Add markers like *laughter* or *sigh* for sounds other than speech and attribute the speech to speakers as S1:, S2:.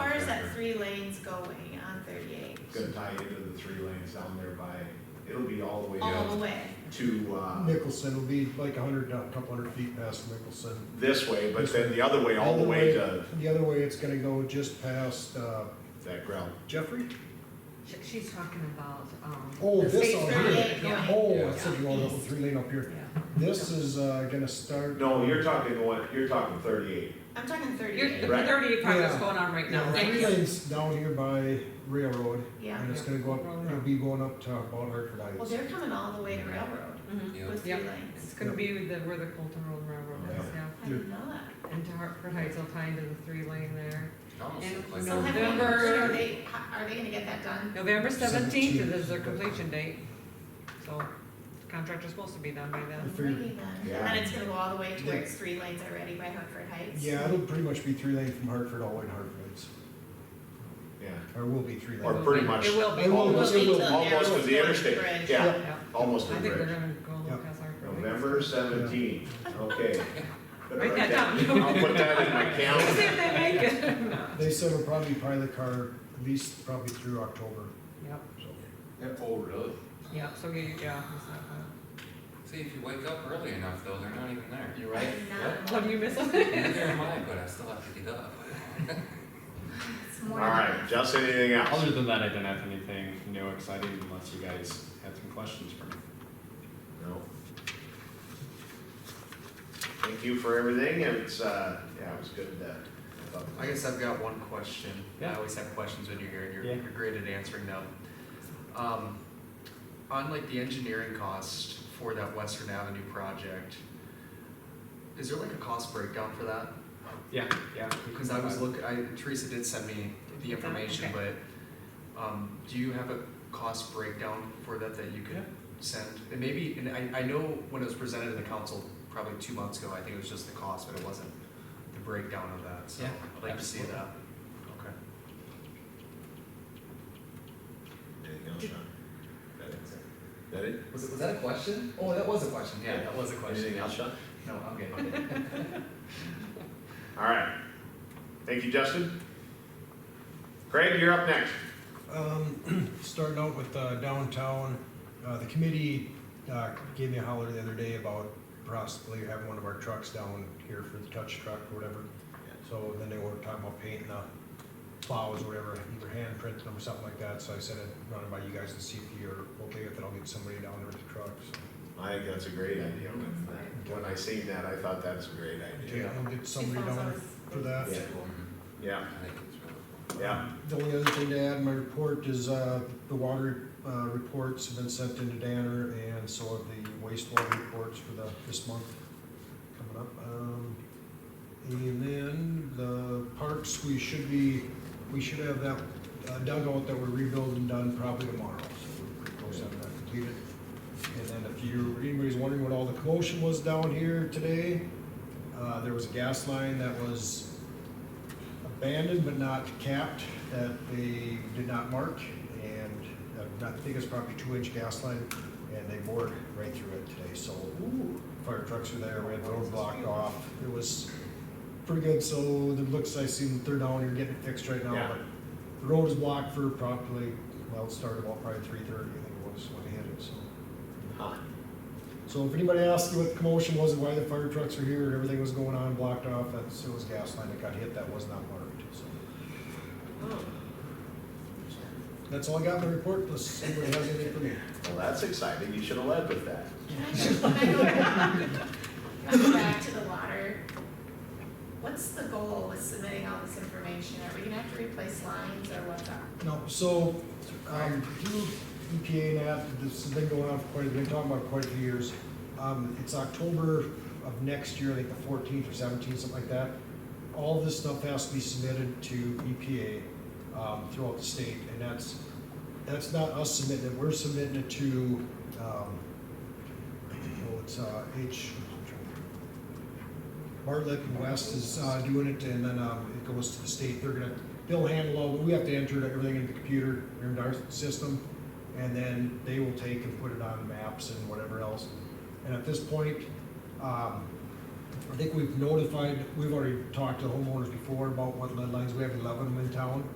S1: lanes going on thirty-eight,
S2: Gonna tie into the three lanes down there by, it'll be all the way
S1: all the
S2: up
S1: way.
S2: to, uh,
S3: Nicholson will be like a hundred, a couple hundred feet past Nicholson.
S2: this way, but then the other way, all the way to
S3: The other way, it's gonna go just past uh,
S2: that ground.
S3: Jeffrey?
S4: She- She's talking about, um.
S3: Oh,
S4: the
S3: this
S4: state
S3: all
S4: thirty
S3: here.
S4: eight,
S1: Yeah.
S4: yeah.
S3: Oh, I said you want a little three lane up here.
S4: Yeah.
S3: This is uh, gonna start.
S2: No, you're talking one, you're talking thirty-eight.
S1: I'm talking
S4: You're, the
S1: thirty-eight,
S2: Right.
S4: thirty project's
S3: Yeah.
S4: going on right now,
S3: Yeah,
S4: right?
S3: Three lanes down here by railroad,
S1: yeah.
S3: and it's gonna go up, it'll be going up to about Hartford
S1: Well,
S3: Heights.
S1: they're coming all the way to Railroad
S4: Mhm.
S5: Yeah.
S1: with three
S4: Yep.
S1: lanes.
S4: It's gonna be the, where the Colton Road Railroad is, yeah.
S1: I didn't know that.
S4: And to Hartford Heights, I'll tie into the three lane there.
S5: Almost
S4: And
S5: looks like
S1: So have
S5: a-
S1: they-
S4: November-
S1: Are they, are they gonna get that done?
S4: November seventeenth
S3: Seventeenth.
S4: is their completion date, so contractor's supposed to be done by then.
S3: Three.
S1: Maybe then.
S2: Yeah.
S1: And it's gonna go all the way
S3: Yeah.
S1: towards three lanes already by Hartford Heights?
S3: Yeah, it'll pretty much be three lane from Hartford all the way to Hartford Heights,
S2: Yeah,
S3: or will be three
S2: Or
S3: lane.
S2: pretty much.
S4: It will be.
S3: It will be.
S2: Almost,
S3: It will.
S2: almost to the interstate, yeah,
S4: Yeah.
S2: almost to
S4: I
S2: the
S4: think they're
S2: bridge.
S4: gonna go a little
S3: Yep.
S4: past Hartford. Heights.
S2: November seventeenth, okay. Better
S4: Write that down.
S2: I'll put that in my
S4: *laughs* See if
S2: calendar.
S4: they make it. *laughs* No.
S3: They said it'll probably pilot car at least probably through October,
S4: Yep,
S3: so.
S5: Oh, really?
S4: yep, so you, yeah. it's not bad.
S5: See, if you wake up early enough though, they're not even there. You're
S1: I'm not-
S4: What do you miss?
S5: Neither am I, but I still have to get up. *laughs*
S1: It's
S2: All
S1: more than-
S2: right, Justin, anything else?
S6: Other than that, I didn't have anything new exciting unless you guys had some questions for me.
S2: No. Thank you for everything, and it's, uh, yeah, it was good uh, that. I thought-
S7: I guess I've got one question. I
S6: Yeah.
S7: always have questions when you're here, and you're,
S6: Yeah.
S7: you're great at answering them. Um, on like the engineering cost for that Western Avenue project, is there like a cost breakdown for that?
S6: Yeah, yeah.
S7: Because I was look, I, Teresa did send me the information, but, um, do you have a cost breakdown for that that you
S6: Yeah.
S7: could send? And maybe, and I, I know when it was presented to the council probably two months ago, I think it was just the cost, but it wasn't the breakdown of that, so
S6: Yeah,
S7: I'd like to see that. Okay.
S2: Anything else, Sean? That it? That it?
S7: Was, was that a question? Oh, that was a question, yeah, that was a question.
S2: Anything else, Sean?
S7: No, I'm good.
S2: All right. Thank you, Justin. Craig, you're up next.
S3: Um, *clears throat* starting out with uh, downtown, uh, the committee, uh, gave me a holler the other day about possibly having one of our trucks down here for the touch truck or whatever. So then they were talking about painting the plows or whatever, either handprint them or something like that, so I said I'd run it by you guys and see if you're okay with it, I'll get somebody down there with the trucks.
S2: I think that's a great idea. When I seen that, I thought that's a great idea.
S3: Okay, I'll get somebody down there for that.
S2: Yeah. Yeah,
S5: I think it's really
S2: yeah.
S3: The only other thing to add in my report is, uh, the water, uh, reports have been sent into Danner, and so have the wastewater reports for the, this month coming up. Um, And then the parks, we should be, we should have that uh, dugout that we're rebuilding done probably tomorrow, so we're pretty close on that completed. And then if you, anybody's wondering what all the commotion was down here today, uh, there was a gas line that was abandoned but not capped, that they did not mark, and uh, I think it's probably two-inch gas line, and they bored right through it today, so fire trucks were there, we had the road blocked off, it was pretty good, so the looks, I seen they're down here getting it fixed right now,
S2: Yeah.
S3: but the road is blocked for probably, well, it started about probably three-thirty, I think it was, when they hit it, so.
S2: Huh.
S3: So if anybody asks you what the commotion was, and why the fire trucks were here, and everything was going on, blocked off, that's, it was gas line that got hit, that was not marked, so. That's all I got in the report, unless anybody has anything for me.
S2: Well, that's exciting. You should have led with that.
S1: Can I go- can I go back- go back to the water? What's the goal with submitting all this information? Are we gonna have to replace lines or what's up?
S3: No, so, um, through EPA and that, this has been going on for quite, we've been talking about it quite a few years. Um, it's October of next year, I think the fourteenth or seventeenth, something like that. All this stuff has to be submitted to EPA, um, throughout the state, and that's, that's not us submitting it, we're submitting it to, um, oh, it's, uh, H, Bartlett and West is, uh, doing it, and then, um, it goes to the state, they're gonna, they'll handle all, we have to enter everything into the computer, into our system, and then they will take and put it on maps and whatever else. And at this point, um, I think we've notified, we've already talked to homeowners before about what lead lines, we have eleven of them in town.